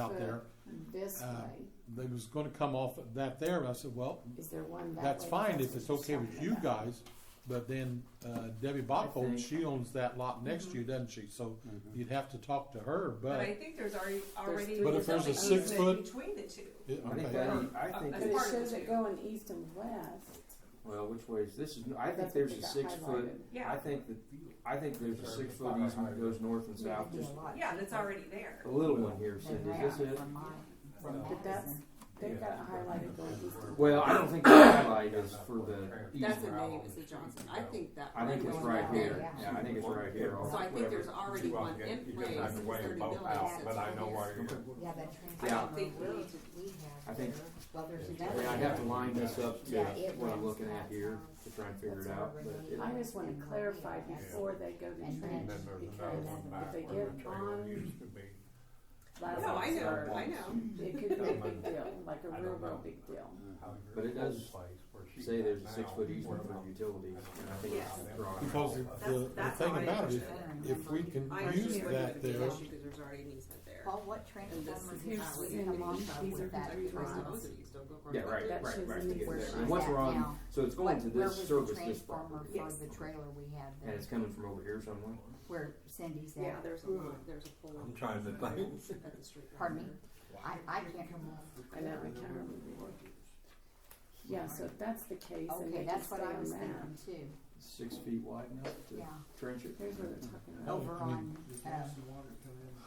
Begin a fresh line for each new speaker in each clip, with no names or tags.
out there
This
Uh,
way,
that was gonna come off of that there, I said, well,
is there one that way?
that's fine if
what
it's
you're
okay with
talking
you
about.
guys, but then, uh, Debbie
I
Botfold,
think-
she owns that lot next
Mm-hmm.
to you, doesn't she? So you'd have to talk to her,
But I
but,
think there's already, already.
But if there's a six foot-
Between the two.
it-
I think
okay.
that- I
But
think
That's
it
it's-
part of
shows
it,
it
too.
going east and west.
well, which way is this? Is I think
That's
there's
what
a
got
six foot.
highlighted.
Yeah.
I think that I think there's a six foot easement that goes north and south. Just
Yeah, that's already there.
a little one here, Cindy. Is this it?
But that's, they've got it highlighted going east and west.
Well, I don't think the highlight is for the
That's a
easement.
name, it's a Johnson. I think that.
I think it's
one
right
goes
here.
there.
Yeah, I think it's right here.
So I think there's already one in place, it's thirty buildings that's
But I know
on
where you're.
Yeah, that
Yeah.
transformer
think we
road
need to-
we have
I think-
there, well, there's
I
another
mean, I
one.
have to line this up to
Yeah, it
what I'm
runs
looking at
that
here
size.
to try and figure
That's
it out. But
what we
it,
need.
I just wanna clarify before they go to
And
trench,
Then there's another
because
one
if
back
they
where
get
the trailer
on
used to be.
last
No, I know,
resort,
I know.
it could be a big deal, like a real, real big deal.
But it does say there's a six foot easement for
from
utilities, and I think
Yes.
it's drawn.
because the, the- the
that's
thing
how I
about it,
understand
if we can use
I understand what
that
the
there,
Because there's already an easement there.
Paul, what
And this
transformer
is.
did
Here's
how
you
it
Cindy
would be
Mom.
shot
These
with
are the
that
three
across the
lines.
cities. Don't go across
Yeah,
the
right,
bridge.
That
right,
shows
right.
the
to get
where
there.
she's
And once we're
at
on,
now.
so it's going to
Where
this
was
service,
the
this property,
transformer
Yes.
for the trailer we have
and
there,
it's coming from over here somewhere.
where Cindy's
Yeah,
at?
there's a lot, there's a pole.
I'm trying to think.
At the street.
Pardon me?
corner.
I, I can't remember.
I know, I can't remember. Yeah, so if that's the case, and
Okay,
they can
that's
stay
what I
on
was
that,
thinking too,
Six feet wide enough to
yeah,
trench it.
here's what they're talking about.
over
I mean,
on, uh,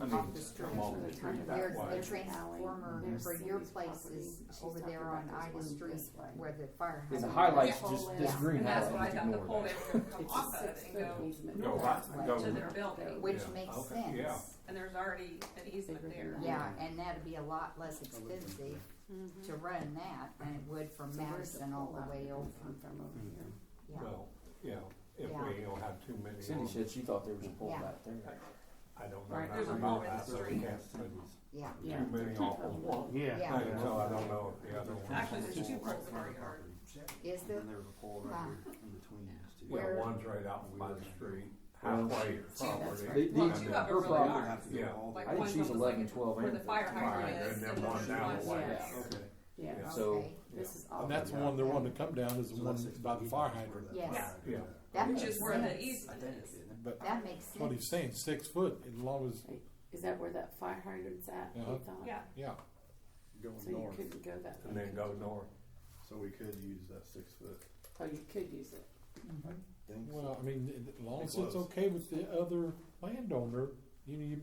I mean,
off the street.
come off the tree
There's
that
the
way.
transformer
Alley.
for your
Cindy's
place is
property. She's
over
talking
there
about
on
this
Ida
one
Street
this way.
where the fire.
And the
hydrant
highlights
Yeah.
just, this green
And that's what
highlight,
I
just
thought the
ignore
pole
that.
they were gonna come
It's a
off of it
six
and
foot
go
easement.
Go
That's
back,
what-
go.
to their building.
Which
Yeah,
makes
okay,
sense.
yeah.
And there's already an easement there.
Yeah, and that'd be a lot less expensive
Mm-hmm.
to run that than it would from
So where's
Madison all the way over.
Come from over
Mm-hmm.
here.
Yeah.
Well, you know, if
Yeah.
we don't have too many.
Cindy
on-
said she thought there was a pole
Yeah.
back there.
I don't know.
Right,
nothing
there's a
about
hole in the
that, so we
street.
can't put
Yeah,
Yeah.
Too many off of one.
yeah.
Thing, So I don't know if the other one.
Actually, there's two poles in our yard.
Is there?
there was a pole
right Wow.
in between these two.
Yeah,
where-
one's right out by the street,
Well,
halfway
that's
property.
right.
Well,
and
two
then
of them
her
really
problem-
are.
Yeah.
Like
I think
one
she's
goes like
11, 12,
Where
and
the fire
13.
hydrant
Right,
is.
and then
the
one down
one's
the way.
there.
Yeah. Yeah,
Yeah. So,
Okay.
this is all.
and that's the one they're wanting to come down is the one by the fire hydrant.
Yes.
Yeah.
That
Which
makes
is where the
sense.
easement is.
But
That makes sense.
what he's saying, six foot, as long as,
Is that where that fire hydrant's at? they
Uh-huh.
thought?
Yeah,
yeah,
Going
So you
north,
couldn't go that
And then
way.
go north.
so we could use that six foot.
Oh, you could use it.
Mm-hmm.
thing.
well, I mean, it- as long
It
as it's
was.
okay with the other landowner, you know, you,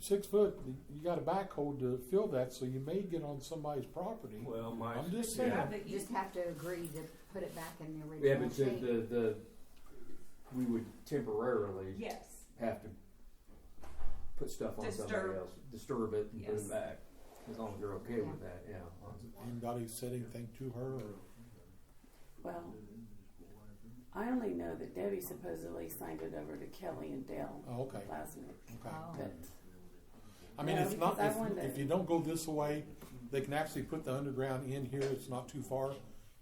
six foot, you got a backhoe to fill that, so you may get on somebody's property.
Well, my.
I'm just
yeah.
saying.
have the
You just
easement.
have to agree to put it back in the
Yeah,
original
but the,
shape.
the, the, we would temporarily
Yes.
have to put stuff on somebody
Disturb.
else, disturb it and put
Yes.
it back. As long as you're okay with that, yeah.
Anybody said anything to her or?
Well, I only know that Debbie supposedly signed it over to Kelly and Dale
Oh, okay,
last week,
okay.
Oh,
but
I mean,
No,
it's not,
because I
if,
wanted-
if you don't go this way, they can actually put the underground in here, it's not too far.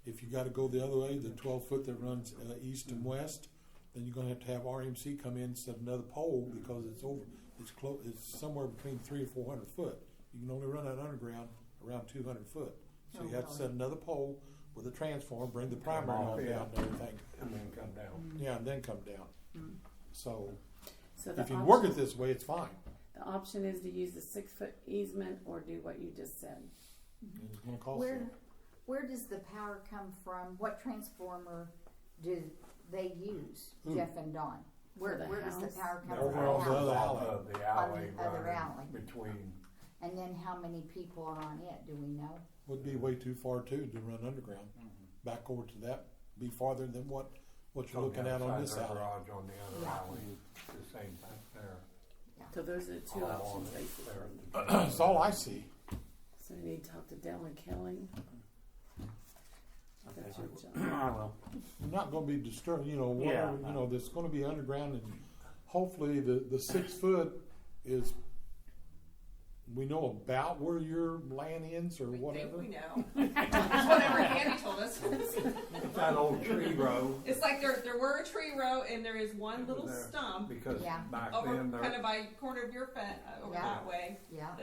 If you gotta go the other way, the twelve foot that runs, uh, east and west, then you're gonna have to have RMC come in and set another pole because it's over, it's clo- it's somewhere between three and four hundred foot. You can only run that underground around two hundred foot, so you have to set another pole with a transformer, bring the primary
off,
on down
yeah.
and everything,
And then come down.
yeah, and then come down. So,
so Mm-hmm. the
if you work it
option,
this way, it's fine.
the option is to use the six foot easement or do what you just said. Mm-hmm.
It's gonna cost
Where,
you.
where does the power come from? What transformer do they use, Jeff and Don? Where,
For the
where does the
house?
power come
They're
from?
Over on the
How-
other
off
alley.
of The alley
the other
running
alley.
Between,
And then how many people are on it, do we know?
would be way too far too to run underground. Back over to that, be farther than what, what you're
on the
looking at on
outside
this
their
alley.
garage on the other
Yeah.
alley, the same thing there.
So those are the two
All
options
on it
basically.
there.
That's all I see.
So we need to talk to Dale and Kelly. That's your job.
You're not gonna be disturbed, you know, whatever, you know, there's gonna be underground and hopefully the, the six foot is we know about where your land ends or
We think
whatever?
we know. It's Whatever Andy told us.
It's that old tree row,
It's like there, there were a tree row and there is one little
There.
stump
because
Yeah.
back
over
then there.
kind of by corner of your fence, uh, over
Yeah.
that way.
yeah.